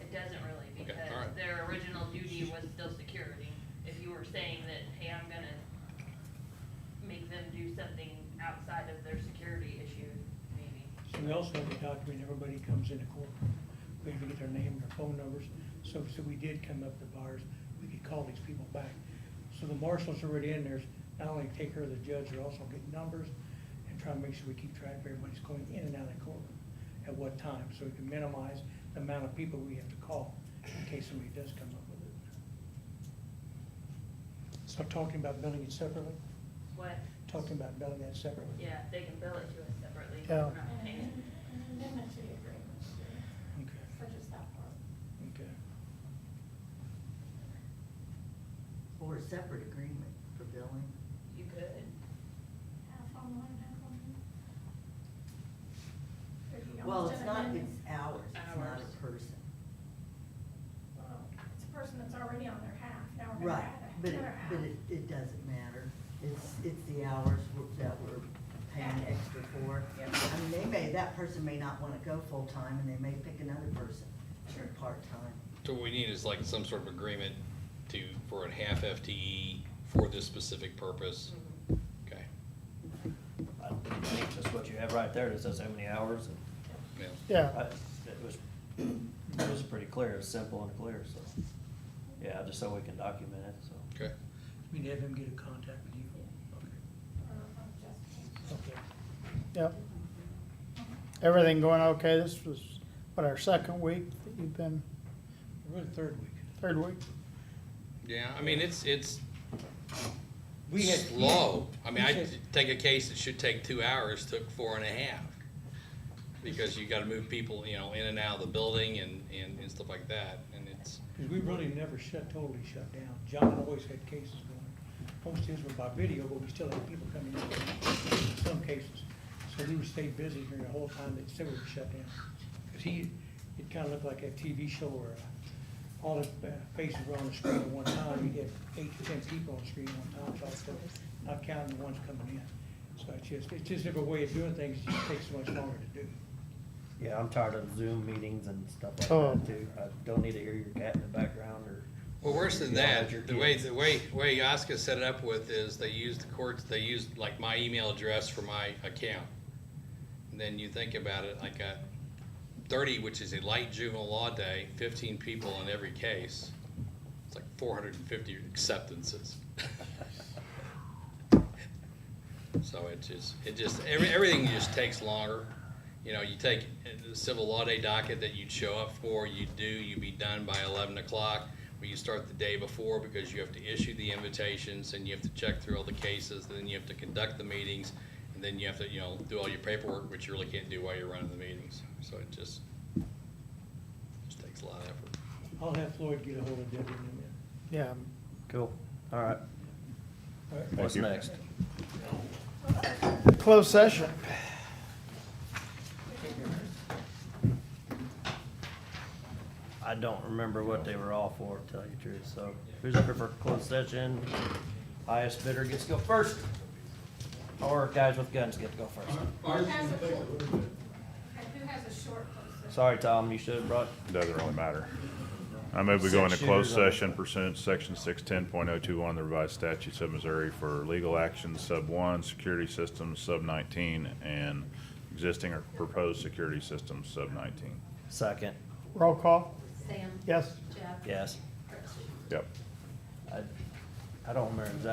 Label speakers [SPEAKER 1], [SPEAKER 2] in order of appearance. [SPEAKER 1] we're saying that, hey, I'm gonna make them do something outside of their security issue, maybe.
[SPEAKER 2] So we also have to document everybody comes into court. We have to get their name, their phone numbers, so, so we did come up to bars, we could call these people back. So the marshals already in there, not only take care of the judge, they're also getting numbers and try to make sure we keep track of everybody's going in and out of court at what time, so we can minimize the amount of people we have to call in case somebody does come up with it. So talking about billing it separately,
[SPEAKER 1] What,
[SPEAKER 2] talking about billing that separately.
[SPEAKER 1] yeah, they can bill it to us separately.
[SPEAKER 2] Yeah.
[SPEAKER 1] we're not paying it.
[SPEAKER 3] Amendment to the agreement, too,
[SPEAKER 2] Okay.
[SPEAKER 3] for just that part.
[SPEAKER 2] Okay.
[SPEAKER 4] Or a separate agreement for billing.
[SPEAKER 1] You could.
[SPEAKER 3] Half on one, half on the other. If you don't
[SPEAKER 4] Well,
[SPEAKER 3] want
[SPEAKER 4] it's
[SPEAKER 3] to
[SPEAKER 4] not,
[SPEAKER 3] amend
[SPEAKER 4] it's
[SPEAKER 3] it,
[SPEAKER 4] hours, it's not
[SPEAKER 1] Hours.
[SPEAKER 4] a person.
[SPEAKER 3] well, It's a person that's already on their half, now we're gonna
[SPEAKER 4] Right,
[SPEAKER 3] add
[SPEAKER 4] but it,
[SPEAKER 3] another half.
[SPEAKER 4] but it, it doesn't matter. It's, it's the hours we're- that we're paying extra for. I mean, they may, that person may not wanna go full-time and they may pick another person for part-time.
[SPEAKER 5] So what we need is like some sort of agreement to, for a half FTE for this specific purpose. Okay,
[SPEAKER 6] I think Just what you have right there, it says how many hours, and
[SPEAKER 5] yeah.
[SPEAKER 6] I, it was, it was pretty clear, it was simple and clear, so. Yeah, just so we can document it, so.
[SPEAKER 5] Okay.
[SPEAKER 2] You mean have him get in contact with you?
[SPEAKER 3] Or if I'm just-
[SPEAKER 2] Okay.
[SPEAKER 7] Yep. Everything going okay? This was, what, our second week that you've been,
[SPEAKER 2] We're in third week.
[SPEAKER 7] third week?
[SPEAKER 5] Yeah, I mean, it's, it's
[SPEAKER 2] We had-
[SPEAKER 5] slow. I mean,
[SPEAKER 2] we
[SPEAKER 5] I
[SPEAKER 2] said-
[SPEAKER 5] take a case that should take two hours, took four and a half. Because you gotta move people, you know, in and out of the building and, and, and stuff like that, and it's,
[SPEAKER 2] Cause we really never shut, totally shut down. John always had cases going. Most of his were by video, but we still had people coming in, in some cases. So we would stay busy during the whole time that still were shut down. Cause he, it kinda looked like a TV show where uh, all the uh, faces were on the screen at one time. He had eight to ten people on the screen at one time, so I still, not counting the ones coming in. So it's just, it's just a different way of doing things. It just takes so much longer to do.
[SPEAKER 6] Yeah, I'm tired of Zoom meetings and stuff like
[SPEAKER 7] Oh.
[SPEAKER 6] that too. I don't need to hear your cat in the background or.
[SPEAKER 5] Well, worse than
[SPEAKER 6] yell at
[SPEAKER 5] that,
[SPEAKER 6] your
[SPEAKER 5] the way,
[SPEAKER 6] kids.
[SPEAKER 5] the way, way Yaska set it up with is they used the courts, they used like my email address for my account. And then you think about it, I got thirty, which is a light juvenile law day, fifteen people in every case. It's like four hundred and fifty acceptances. So it just, it just, every, everything just takes longer. You know, you take uh, the civil law day docket that you'd show up for, you do, you be done by eleven o'clock. Well, you start the day before because you have to issue the invitations and you have to check through all the cases, then you have to conduct the meetings. And then you have to, you know, do all your paperwork, which you really can't do while you're running the meetings. So it just, just takes a lot of effort.
[SPEAKER 2] I'll have Floyd get a hold of Debbie in a minute.
[SPEAKER 7] Yeah,
[SPEAKER 6] Cool, all right.
[SPEAKER 2] All right.
[SPEAKER 6] What's next?
[SPEAKER 7] closed session.
[SPEAKER 6] I don't remember what they were all for, to tell you the truth, so who's looking for closed session? Highest bidder gets to go first. Or guys with guns get to go first.
[SPEAKER 3] Who has a short- okay, who has a short close session?
[SPEAKER 6] Sorry, Tom, you should have brought
[SPEAKER 8] Doesn't really matter. I move we go into
[SPEAKER 6] Six
[SPEAKER 8] closed
[SPEAKER 6] shooters on-
[SPEAKER 8] session pursuant to section six ten point oh two one of the revised statutes of Missouri for legal action sub one, security systems sub nineteen, and existing or proposed security systems sub nineteen.
[SPEAKER 6] second,
[SPEAKER 7] Roll call?
[SPEAKER 9] Sam,
[SPEAKER 7] Yes.
[SPEAKER 9] Jeff,
[SPEAKER 6] yes.
[SPEAKER 9] Chris.
[SPEAKER 8] Yep.
[SPEAKER 6] I, I don't remember exactly